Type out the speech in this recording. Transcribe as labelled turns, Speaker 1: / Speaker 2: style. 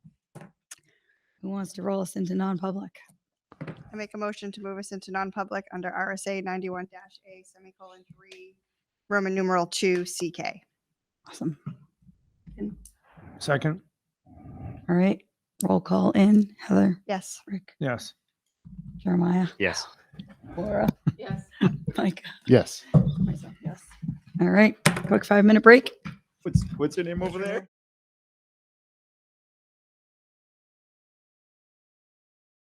Speaker 1: Who wants to roll us into non-public?
Speaker 2: I make a motion to move us into non-public under RSA ninety-one dash A semicolon three, Roman numeral two CK.
Speaker 1: Awesome.
Speaker 3: Second,
Speaker 1: All right. Roll call in. Heather,
Speaker 2: Yes.
Speaker 1: Rick,
Speaker 3: yes.
Speaker 1: Jeremiah,
Speaker 4: Yes.
Speaker 1: Laura,
Speaker 5: Yes.
Speaker 1: Mike,
Speaker 6: Yes.
Speaker 1: myself, yes. All right. Quick five-minute break.
Speaker 7: What's, what's her name over there?